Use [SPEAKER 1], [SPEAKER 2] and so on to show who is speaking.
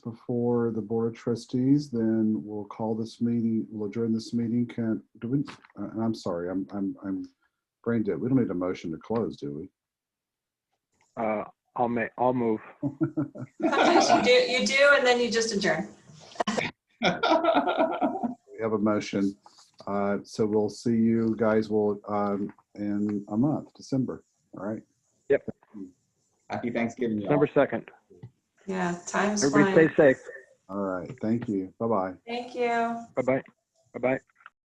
[SPEAKER 1] before the Board of Trustees, then we'll call this meeting, we'll adjourn this meeting. Can, do we, uh, and I'm sorry, I'm, I'm, I'm brain dead. We don't need a motion to close, do
[SPEAKER 2] Uh, I'll ma, I'll move.
[SPEAKER 1] we?
[SPEAKER 3] Sometimes you do, you do, and then you just adjourn.
[SPEAKER 1] We have a motion. Uh, So we'll see you guys will um, in a month, December. All right.
[SPEAKER 4] Happy Thanksgiving, y'all.
[SPEAKER 2] December 2nd.
[SPEAKER 3] Yeah, time's
[SPEAKER 2] Everybody
[SPEAKER 3] flying.
[SPEAKER 2] stay safe.
[SPEAKER 1] All right. Thank you. Bye-bye.
[SPEAKER 3] Thank you.
[SPEAKER 2] Bye-bye. Bye-bye.